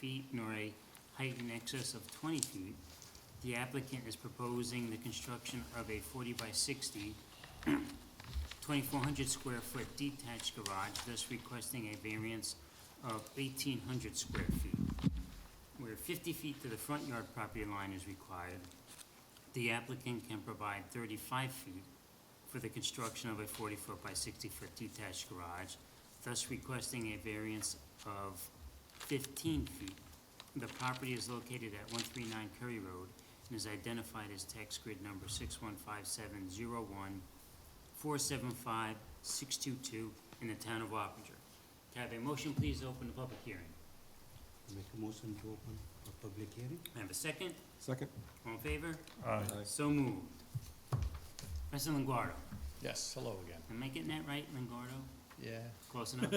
feet nor a height in excess of twenty feet, the applicant is proposing the construction of a forty by 60, 2400 square foot detached garage, thus requesting a variance of eighteen hundred square feet. Where fifty feet to the front yard property line is required, the applicant can provide thirty-five feet for the construction of a forty-foot by sixty-foot detached garage, thus requesting a variance of fifteen feet. The property is located at one three nine Curry Road and is identified as tax grid number six one five seven zero one four seven five six two two in the town of Wappinger. Can I have a motion, please, to open the public hearing? Make a motion to open a public hearing? Can I have a second? Second? All in favor? Aye. So moved. President Longoria, Yes, hello again. am I getting that right, Longoria? Yeah, Close enough?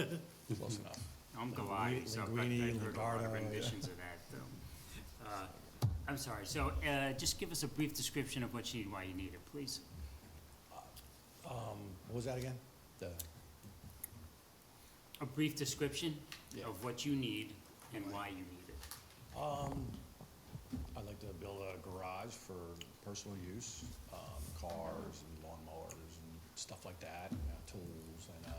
close enough. I'm Goliath, so I've got- Linguini, I've heard a lot of Lombardo, yeah. renditions of that, though. Uh, I'm sorry, so uh, just give us a brief description of what you need, why you need it, please. Um, what was that again? The- A brief description Yeah. of what you need and why you need it. Um, I'd like to build a garage for personal use, um, cars and lawnmowers and stuff like that, you know, tools and, uh,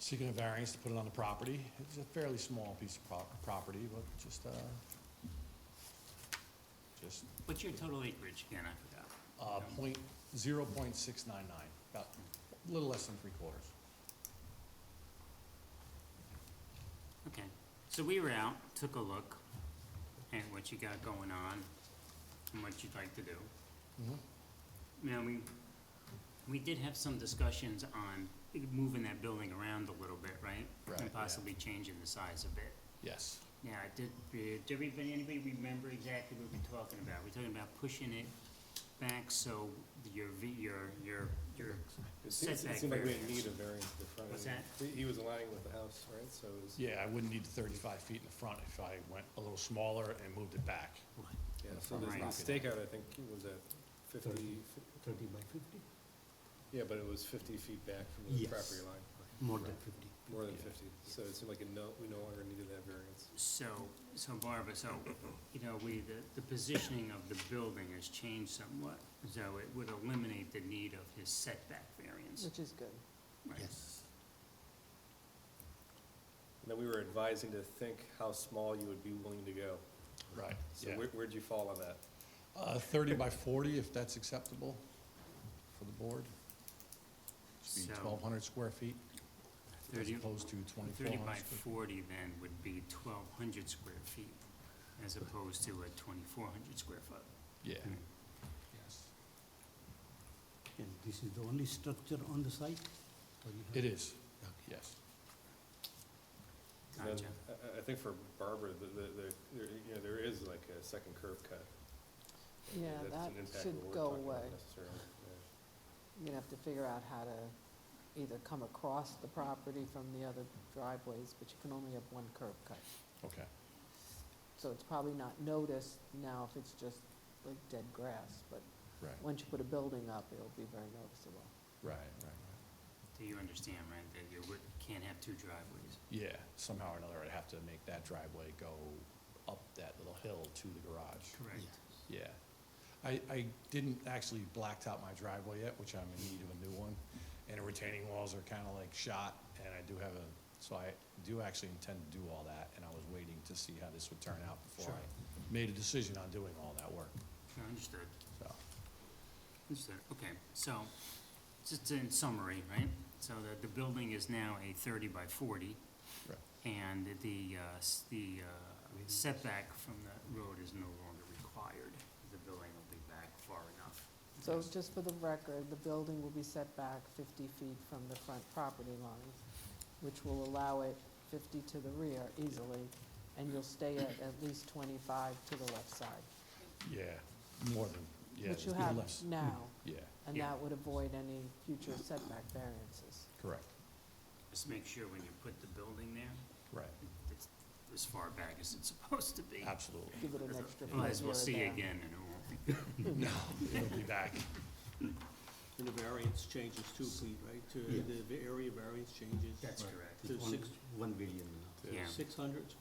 seeking a variance to put it on the property. It's a fairly small piece of prop- property, but just, uh, just, What's your total acreage again, I forgot? uh, point, zero point six nine nine, about, a little less than three quarters. Okay, so we were out, took a look at what you got going on and what you'd like to do. Mhm. Now, we, we did have some discussions on moving that building around a little bit, right? Right, yeah. And possibly changing the size a bit. Yes, Now, I did, did everybody, anybody remember exactly what we're talking about? We're talking about pushing it back so your, v- your, your, your It seemed, setback it seemed like we didn't variance. need a variance for the front. What's end. He, he was aligning with the house, right, so it was, Yeah, I wouldn't need the thirty-five feet in the front if I went a little smaller and moved it back. yeah, the so front the right. the stakeout, I think, was at fifty, Thirty. Thirty by fifty? yeah, but it was fifty feet back from the Yes. property line, More than fifty. more than Yeah. fifty. So it seemed like it no, we no longer needed that variance. So, so Barbara, so, you know, we, the, the positioning of the building has changed somewhat, so it would eliminate the need of his setback variance. Which is good. right? Yes. And then we were advising to think how small you would be willing to go. Right, So yeah. where, where'd you fall on that? Uh, thirty by forty, if that's acceptable for the board. Should be So- twelve hundred square feet as 30 opposed to twenty-four Thirty by hundred. forty then would be twelve hundred square feet, as opposed to a twenty-four hundred square foot. Yeah, Mm. yes. And this is the only structure on the site? or you have- It is, Okay. yes. And then Gotcha. I, I- I think for Barbara, the, the, the, there- you know, there is like a second curve cut. Yeah, That's that an impact of should what we're go talking about away. necessarily, yeah. You're gonna have to figure out how to either come across the property from the other driveways, but you can only have one curb cut. Okay, So it's probably not noticed now if it's just like dead grass, but right, once you put a building up, it'll be very noticeable. right, right, right. Do you understand, right, that you would, can't have two driveways? Yeah, somehow or another, I'd have to make that driveway go up that little hill to the garage. Correct. Yeah. I, I didn't actually blacktop my driveway yet, which I'm in need of a new one. And the retaining walls are kind of like shot, and I do have a, so I do actually intend to do all that, and I was waiting to see how this would turn out before I made a decision on doing all that work, Sure, Understood, so. understood, okay, so, just in summary, right? So the, the building is now a thirty by forty, Right. and the, uh, s- the uh, setback from the road is no longer required. The building will be back far enough. So just for the record, the building will be set back fifty feet from the front property line, which will allow it fifty to the rear easily, and you'll stay at at least twenty-five to the left side, Yeah, more than, yeah, which you there's have less. now. Yeah, And Yeah. that would avoid any future setback variances. correct, Just make sure when you put the building there, right, it's as far back as it's supposed to be. absolutely. Give it an extra foot here or there. Otherwise, we'll see again and it won't be No, it'll be back, And the variance changes too, Pete, right? To Yeah. The the area variance changes That's Right. correct. It's To one- six- One billion now. Yeah. six hundred square